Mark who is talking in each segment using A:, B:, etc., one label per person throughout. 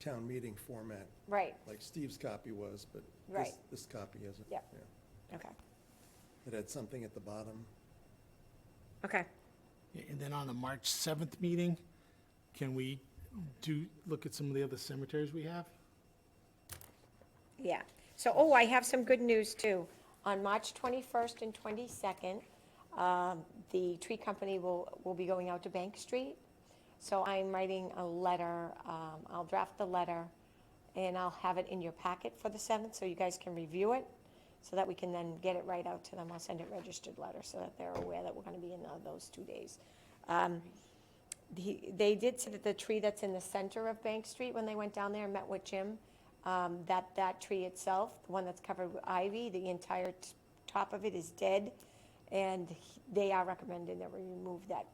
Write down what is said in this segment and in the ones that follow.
A: town meeting format,
B: Right,
A: like Steve's copy was, but this,
B: Right.
A: this copy isn't.
B: Yep.
A: Yeah.
B: okay,
A: It had something at the bottom.
B: okay,
C: And then on the March 7th meeting, can we do, look at some of the other cemeteries we have?
B: yeah. So, oh, I have some good news too. On March 21st and 22nd, um, the tree company will, will be going out to Bank Street. So I'm writing a letter, um, I'll draft the letter, and I'll have it in your packet for the 7th, so you guys can review it, so that we can then get it right out to them. I'll send it registered letter, so that they're aware that we're gonna be in tho- those two days. Um, the- They did say that the tree that's in the center of Bank Street, when they went down there and met with Jim, um, that that tree itself, the one that's covered with ivy, the entire t- top of it is dead, and he- they are recommending that we remove that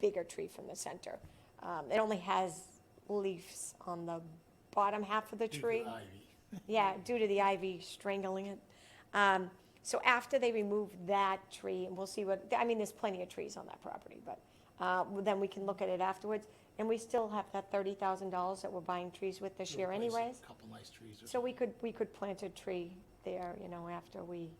B: bigger tree from the center. Um, It only has leaves on the bottom half of the tree. Yeah, due to the ivy strangling it. Um, So after they remove that tree, and we'll see what, I mean, there's plenty of trees on that property, but uh, then we can look at it afterwards. And we still have that thirty thousand dollars that we're buying trees with this year anyways.
C: Couple nice trees.
B: So we could, we could plant a tree there, you know, after we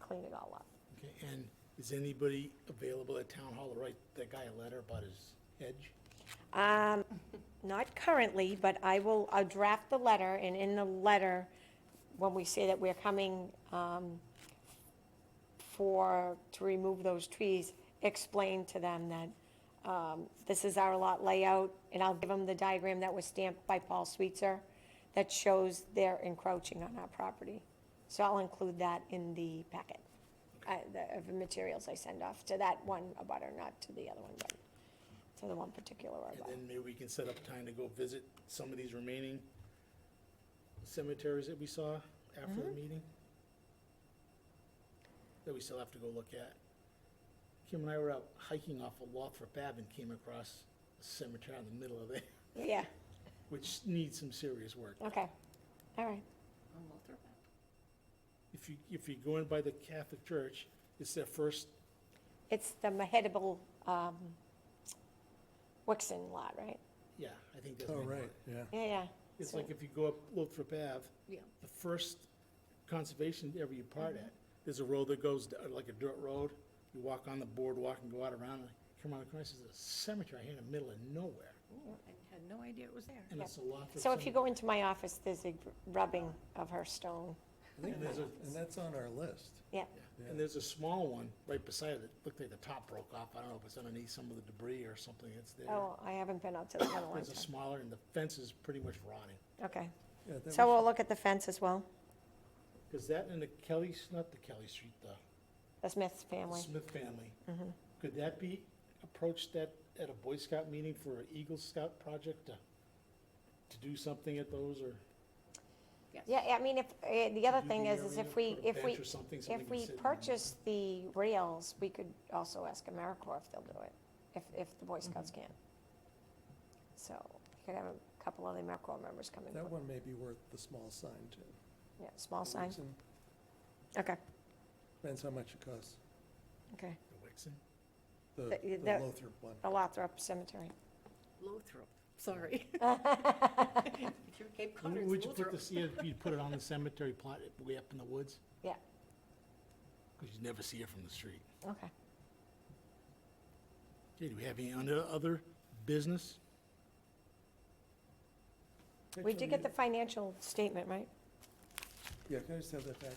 B: clean it all up.
C: Okay, And is anybody available at Town Hall to write that guy a letter about his hedge?
B: Um, Not currently, but I will, I'll draft the letter, and in the letter, when we say that we're coming um, for, to remove those trees, explain to them that um, this is our lot layout, and I'll give them the diagram that was stamped by Paul Sweetser that shows they're encroaching on our property. So I'll include that in the packet, uh, the- of the materials I send off to that one abutter, not to the other one, but to the one particular
C: And
B: abutter.
C: then maybe we can set up time to go visit some of these remaining cemeteries that we saw after the meeting? That we still have to go look at. Kim and I were out hiking off of Lothrop Ave and came across a cemetery in the middle of it,
B: Yeah,
C: which needs some serious work.
B: okay, all right.
C: If you, if you go in by the Catholic Church, it's their first,
B: It's the Mahedable, um, Wixon lot, right?
C: yeah, I think that's.
A: Oh,
C: what they call
A: right,
C: it.
A: yeah.
B: Yeah, yeah.
C: It's
B: So-
C: like if you go up Lothrop Ave. The first conservation ever you part
B: Mm-hmm.
C: at, there's a road that goes, d- like a dirt road. You walk on the boardwalk and go out around and come around the corner, there's a cemetery here in the middle of nowhere.
D: I had no idea it was there.
C: And it's a Lothrop.
B: So if you
C: cemetery.
B: go into my office, there's a rubbing of her stone.
A: I think
C: And there's a-
A: And that's on our list.
B: Yeah,
C: Yeah. And there's a small one right beside it. Looked like the top broke off. I don't know if it's underneath some of the debris or something that's there.
B: oh, I haven't been out to that in a long
C: There's a
B: time.
C: smaller and the fence is pretty much rotting.
B: Okay,
A: Yeah, that
B: so
A: was-
B: we'll look at the fence as well,
C: Cause that and the Kelly's, not the Kelly Street, the
B: the Smith
C: the
B: family. Mm-hmm.
C: Smith family. Could that be approached at, at a Boy Scout meeting for an Eagle Scout project to, to do something at those or?
B: Yeah, I mean, if, eh, the other
C: do
B: thing
C: the
B: is, is
C: area,
B: if we,
C: put a
B: if we,
C: bench or something, somebody
B: if
C: can
B: we
C: sit in.
B: purchase the rails, we could also ask AmeriCorps if they'll do it, if, if the Boy Scouts
C: Mm-hmm.
B: can. So, you could have a couple of the AmeriCorps members come in,
A: That one may be worth the small sign too.
B: yeah, small sign,
A: Wixon,
B: okay,
A: Depends how much it costs,
B: okay.
C: The Wixon?
A: the,
B: That-
A: the
B: that-
A: Lothrop one.
B: The Lothrop Cemetery.
D: Lothrop, sorry. If you're Cape Cod,
C: Would
D: it's
C: would you put
D: Lothrop.
C: this, yeah, you'd put it on the cemetery plot way up in the woods?
B: Yeah,
C: Cause you never see it from the street.
B: okay.
C: Okay, do we have any under- other business?
B: We did get the financial statement, right?
A: Yeah, can I just have that back?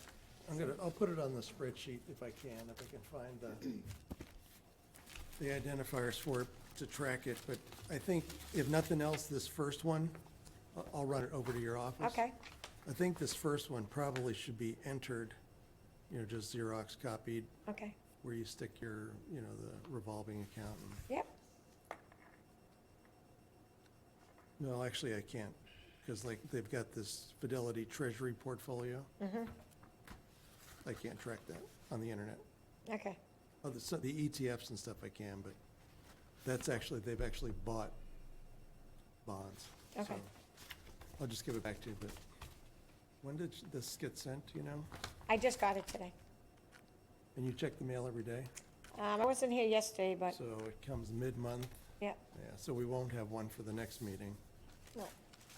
A: I'm gonna, I'll put it on the spreadsheet if I can, if I can find the, the identifiers for it to track it, but I think if nothing else, this first one, I- I'll run it over to your office.
B: Okay,
A: I think this first one probably should be entered, you know, just Xerox copied,
B: okay,
A: where you stick your, you know, the revolving account. and-
B: yep,
A: No, actually, I can't, because like, they've got this Fidelity Treasury portfolio. I can't track that on the internet.
B: okay,
A: Oh, the, so the ETFs and stuff I can, but that's actually, they've actually bought bonds.
B: Okay.
A: so I'll just give it back to you, but when did this get sent, do you know?
B: I just got it today.
A: And you check the mail every day,
B: Um, I wasn't here yesterday, but,
A: so it comes mid-month,
B: yeah,
A: yeah, so we won't have one for the next meeting.
B: no,